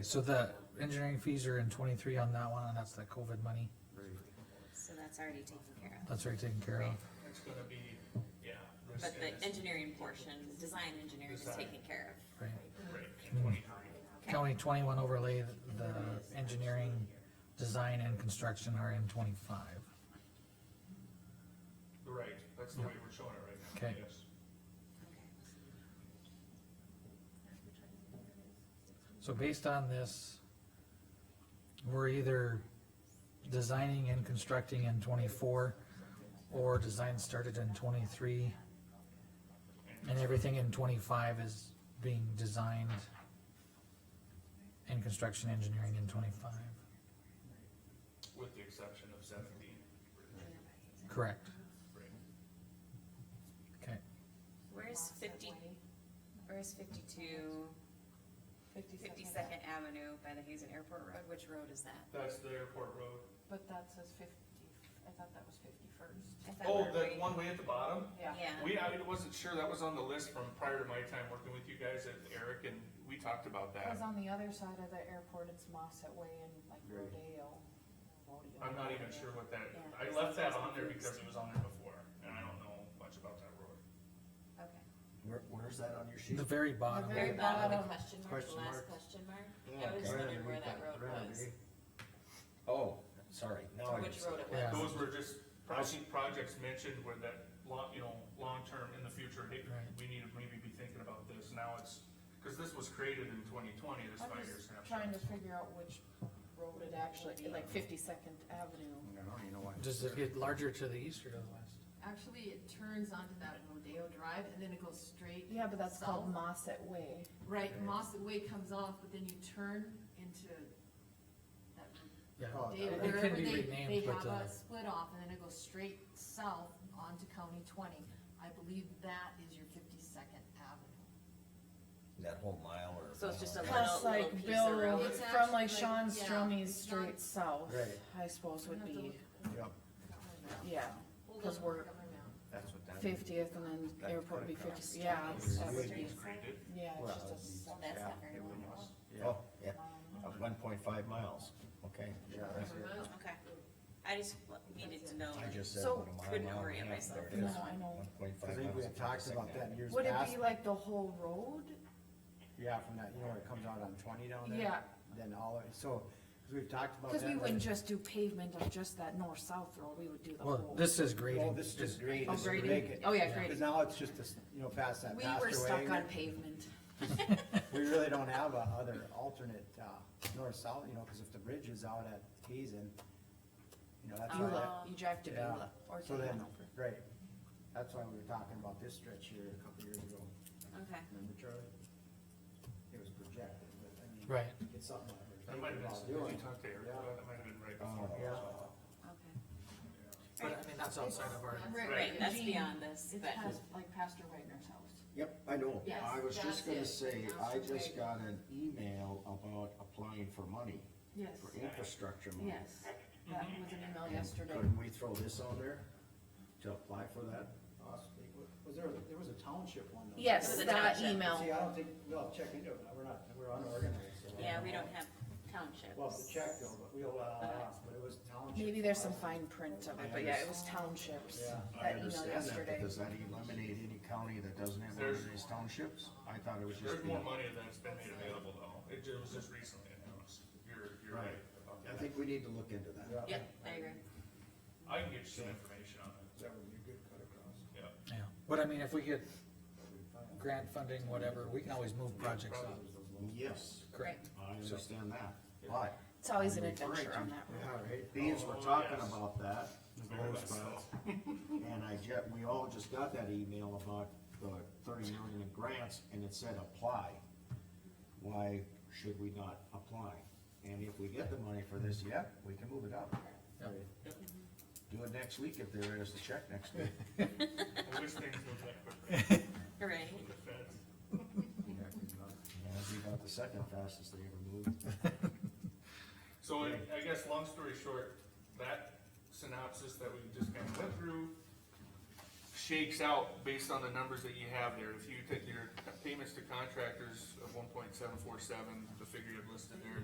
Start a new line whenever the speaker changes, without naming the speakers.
So the engineering fees are in twenty-three on that one, and that's the COVID money,
So that's already taken care of.
that's already taken care of.
It's gonna be, yeah. this
But the
is-
engineering portion, design engineering is taken care
Right,
Right, in twenty-three.
county twenty-one overlay, the engineering, design and construction are in twenty-five.
Right, that's the way we're showing it right now.
Okay.
yes.
So
of. Okay.
based on this, we're either designing and constructing in twenty-four, or design started in twenty-three, and everything in twenty-five is being designed and construction engineering in twenty-five,
With the exception of seventeen.
correct?
Right.
Okay,
Where's fifty, where's fifty-two, fifty-second Avenue by the Hazen Airport Road? Which road is that?
That's the airport road.
But that says fifty, I thought that was fifty-first.
I thought we
Oh,
were
that
waiting-
one way at the bottom?
Yeah.
Yeah,
We, I wasn't sure, that was on the list from prior to my time working with you guys at Eric, and we talked about that.
Cause on the other side of the airport, it's Mossett Way and like
Right.
Rodeo. Rodeo.
I'm not even sure what that,
Yeah.
I left that on there because it was on there before, and I don't know much about that road.
okay.
Where, where's that on your sheet?
the very bottom.
The
Very bottom of the
bottom.
question mark, the
Question
last
mark.
question mark?
Yeah,
I was
okay.
wondering where that road was,
Oh, sorry, now I.
which road it
Yeah.
was.
Those were just project, projects mentioned where that long, you know, long-term in the future, hey,
Right.
we need to maybe be thinking about this, now it's, cause this was created in twenty twenty, this
I'm
five-year
just trying
snapshot.
to figure out which road it actually, like Fifty-second Avenue.
Does it get larger to the east or to the west?
Actually, it turns onto that Rodeo Drive and then it goes straight.
Yeah, but that's called
south.
Mossett Way.
Right, Moss Way comes off, but then you turn into that
Yeah,
Oh,
Rodeo,
it can
wherever
be
they, they
renamed, but
have
uh,
a split off and then it goes straight south onto County twenty. I believe that is your fifty-second Avenue.
That whole mile or.
So it's just a little-
Plus like
piece
Bill
of
Road,
road. It's
from like
actually,
Sean
yeah,
Stromey's
it's not-
straight south,
Right.
I suppose would
I'm gonna
be,
have to look-
Yep,
look up my map.
yeah,
We'll
'cause
look
we're-
up my map.
that's what that.
fiftieth and then
That
airport would be
kinda
fifty, yeah.
It's
that would
just-
be-
Created,
Yeah,
Well,
it's
it's-
just a.
Well, Oh, that's
Yeah,
not very long.
Oh, yeah, one point five miles, okay. Yeah.
Okay, I just needed to know.
I just said.
So-
what a mile,
Couldn't
mile and a
orient
half,
myself.
there it
No,
is,
I know.
1.5
I think we
miles
had
and
talked
52nd
about that in years
Would it
past,
be like the whole road?
yeah, from that, you know, where it comes out on twenty down there?
Yeah.
Then all, of it. so, cause we've talked about that.
Cause we
like-
wouldn't just do pavement of just that north-south road, we would do the
well,
whole.
this is
Oh,
grading.
this is great.
Oh,
this is
grading?
great.
Oh, yeah,
Cause
grading.
now it's just this, you know, past that
We
master
were stuck
way,
on pavement.
we really don't have a other alternate, uh, north-south, you know, cause if the bridge is out at Hazen, you know,
Oh,
Uh,
that's why that.
Beulah, you drive to
Yeah,
Beulah or to
so then,
Hanover.
right, that's why we were talking about this stretch here a couple years ago,
Okay,
remember Charlie? It was projected, but I mean.
Right,
It's something I
that might
was
have been,
thinking about
did
doing.
you talk to Eric,
Yeah. Oh,
about that? that might have been right before.
Oh,
Yeah.
okay.
but I mean, that's outside of our,
Right,
Right, that's
Jean,
beyond this,
It's
but.
past, like Pastor Wagner's house.
Yep, I know.
Yes,
I was
that's
just gonna
it.
say, I
That's
just
right.
got an email about applying for money,
Yes,
for infrastructure money.
yes, that was an email
And
yesterday.
Couldn't we throw this on there to apply for that?
Possibly. Was there, there was a township one? though.
It
Yes,
was a
that
township.
email.
See, I don't think, we'll check into it, we're not, we're unorganized, so.
Yeah, we don't have townships.
We'll have to check though, but we'll, uh, but it was township.
Maybe there's some fine print of it, but yeah, it was townships,
I
Yeah.
that email
understand that,
yesterday.
but does that eliminate any county that doesn't have one
There's-
of these townships? I thought it was just.
There's more
the-
money that's been made available though, it ju- was just recently announced, you're, you're
Right.
right about
I
that.
think we need to look into that.
Yep, I agree.
I can get you some information on it,
That would be a good cut across.
yeah.
yeah, but I mean, if we get grant funding, whatever, we can always move projects up.
Yes,
Correct.
I understand that, but
It's always an
I'm referring
adventure
to-
on that road.
Yeah, right?
Beans
Oh,
were talking
yes.
about that, the
Very
low
much so.
spots, and I ju- we all just got that email about the thirty million in grants, and it said apply. Why should we not apply? And if we get the money for this, yeah, we can move it up. Do it next week if there is the check next week.
I wish things moved that quickly
All right.
with the feds.
And it'd be about the second fastest they ever moved.
So I, I guess, long story short, that synopsis that we just kind of went through shakes out based on the numbers that you have there. If you take your payments to contractors of one point seven four seven, the figure you have listed there,